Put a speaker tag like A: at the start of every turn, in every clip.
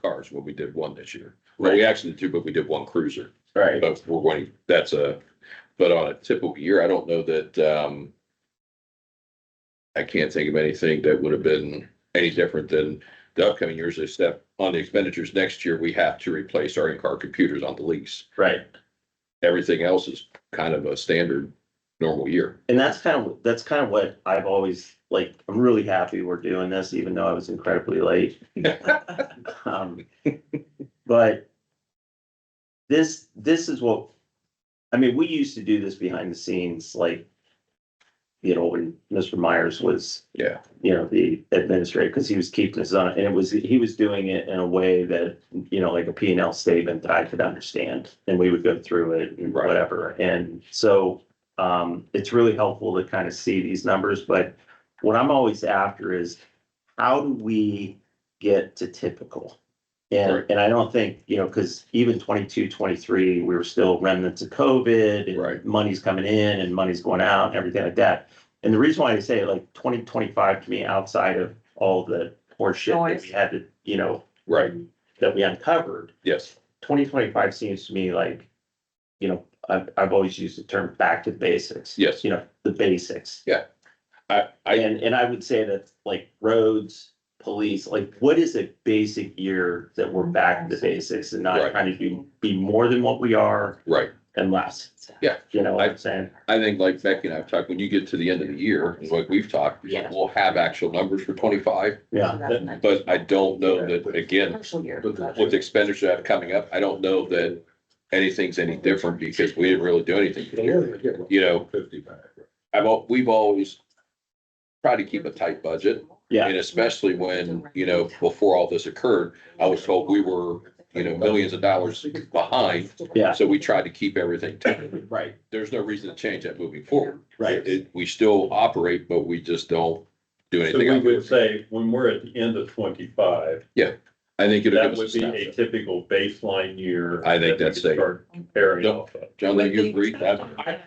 A: cars when we did one this year. Well, we actually did two, but we did one cruiser.
B: Right.
A: But we're going, that's a, but on a typical year, I don't know that, um, I can't think of anything that would have been any different than the upcoming years, except on the expenditures next year, we have to replace our in-car computers on the lease.
B: Right.
A: Everything else is kind of a standard normal year.
B: And that's kind of, that's kind of what I've always, like, I'm really happy we're doing this, even though I was incredibly late. Um, But this, this is what, I mean, we used to do this behind the scenes, like, you know, when Mr. Myers was
A: Yeah.
B: you know, the administrator, because he was keeping his own, and it was, he was doing it in a way that, you know, like a P and L statement that I could understand. And we would go through it and
A: Right.
B: whatever. And so um, it's really helpful to kind of see these numbers, but what I'm always after is how do we get to typical? And,
A: Right.
B: and I don't think, you know, because even 22, 23, we were still remnants of COVID. and
A: Right.
B: Money's coming in and money's going out and everything like that. And the reason why I say like twenty twenty-five to me, outside of all the horseshit that
C: Noise.
B: we had to, you know,
A: Right,
B: that we uncovered,
A: yes,
B: twenty twenty-five seems to me like, you know, I've, I've always used the term back to basics.
A: Yes.
B: You know, the basics.
A: I, I,
B: And, and I would say that like roads, police, like what is a basic year that we're back to the basics and not
A: Right.
B: trying to be, be more than what we are
A: right.
B: and less?
A: Yeah.
B: You know what
A: I-
B: I'm saying?
A: I think like Becky and I've talked, when you get to the end of the year, and like we've talked,
C: Yeah.
A: we'll have actual numbers for twenty-five,
B: Yeah.
A: but I don't know that, again,
C: Partial year.
A: with the expenditure that's coming up, I don't know that anything's any different because we didn't really do anything. this year. You know, I've, al- we've always tried to keep a tight budget.
B: Yeah.
A: And especially when, you know, before all this occurred, I was told we were, you know, millions of dollars behind.
B: Yeah.
A: So we tried to keep everything tight.
B: Right,
A: There's no reason to change that moving forward.
B: right.
A: It, we still operate, but we just don't do
D: So we
A: anything.
D: would say, when we're at the end of twenty-five,
A: I think it'll
D: that
A: give
D: would
A: us
D: be a
A: a snapshot.
D: typical baseline year.
A: I think
D: that we
A: that's
D: could
A: safe.
D: start Comparing
A: Don't-
D: off of.
A: John, do you agree? I-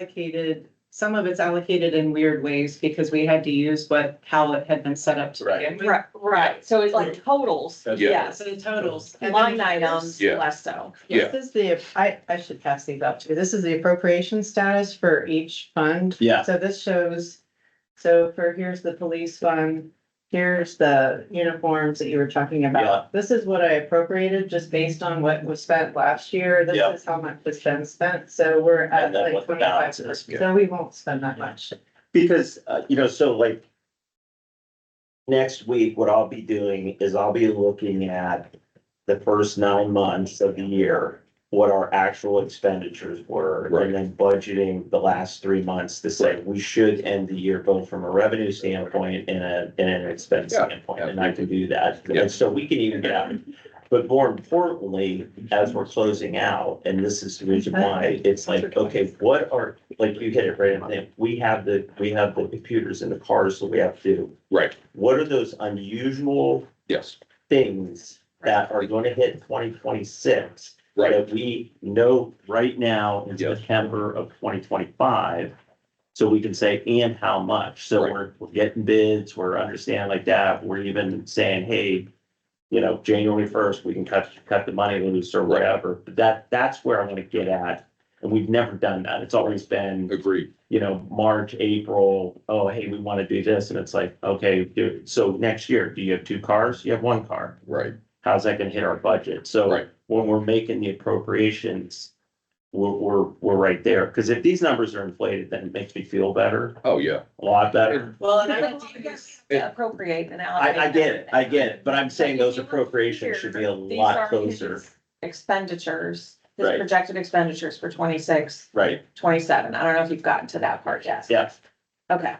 C: Allocated, some of it's allocated in weird ways because we had to use what, how it had been set up to
D: Right.
C: begin with.
E: Right, right, so it's like totals,
D: That's-
A: Yeah.
E: yes,
C: So the totals. and then
E: line items,
A: Yeah.
E: less so.
A: Yeah.
F: This is the, I, I should pass these up too. This is the appropriation status for each fund.
B: Yeah.
F: So this shows, so for, here's the police fund, here's the uniforms that you were talking
B: Yeah.
F: about. This is what I appropriated just based on what was spent last year.
B: Yeah.
F: This is how much has been spent, so we're at
B: And then
F: like
B: what the
F: twenty-five.
B: balance is.
F: So we won't spend that much.
B: Because, uh, you know, so like. Next week, what I'll be doing is I'll be looking at the first nine months of the year. What our actual expenditures were
A: Right.
B: and then budgeting the last three months to say we should end the year both from a revenue standpoint and a, and an expense
A: Yeah,
B: standpoint. And I can do that.
A: Yeah.
B: And so we can even get out. But more importantly, as we're closing out, and this is the reason why, it's like, okay, what are like you hit it right on the head. We have the, we have the computers in the cars that we have to. do.
A: Right,
B: What are those unusual
A: yes,
B: things that are gonna hit twenty twenty-six?
A: right,
B: That we know right now in
A: Yes.
B: September of twenty twenty-five. So we can say, and how much? So
A: Right.
B: we're, we're getting bids, we're understanding like that. We're even saying, hey, you know, January first, we can cut, cut the money loose or
A: Right.
B: whatever. But that, that's where I wanna get at. And we've never done that. It's always been
A: agreed,
B: you know, March, April, oh, hey, we want to do this. And it's like, okay, do- so next year, do you have two cars? You have one car.
A: right,
B: How's that going to hit our budget? So
A: right,
B: when we're making the appropriations, we're, we're, we're right there. Because if these numbers are inflated, then it makes me feel better,
A: oh, yeah.
B: a lot better.
E: Well,
C: and I
E: I
C: don't think it's-
E: Appropriate and
B: I,
E: allocate.
B: I get it, I get it. But I'm saying
E: Like,
B: those
E: if you look
B: appropriations
E: here,
B: should be a
E: These
B: lot
E: are
B: closer,
E: his expenditures, his
B: Right.
E: projected expenditures for 26,
B: right?
E: 27. I don't know if you've gotten to that part yet.
B: Yeah,
E: Okay,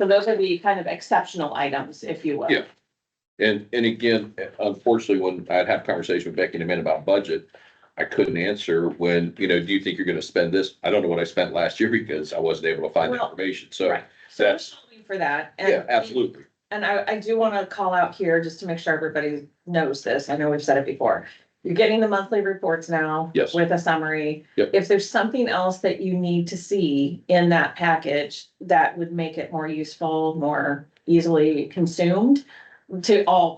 E: so those are the kind of exceptional items, if you will.
A: Yeah. And, and again, unfortunately, when I'd have a conversation with Becky in a minute about budget, I couldn't answer when, you know, do you think you're gonna spend this? I don't know what I spent last year because I wasn't able to find the
E: Well,
A: information, so,
E: Right. So we're
A: that's-
E: solving for that. and-
A: yeah, absolutely,
E: And I, I do want to call out here, just to make sure everybody knows this, I know we've said it before. You're getting the monthly reports now.
A: Yes.
E: With a summary.
A: Yep.
E: If there's something else that you need to see in that package that would make it more useful, more easily consumed to all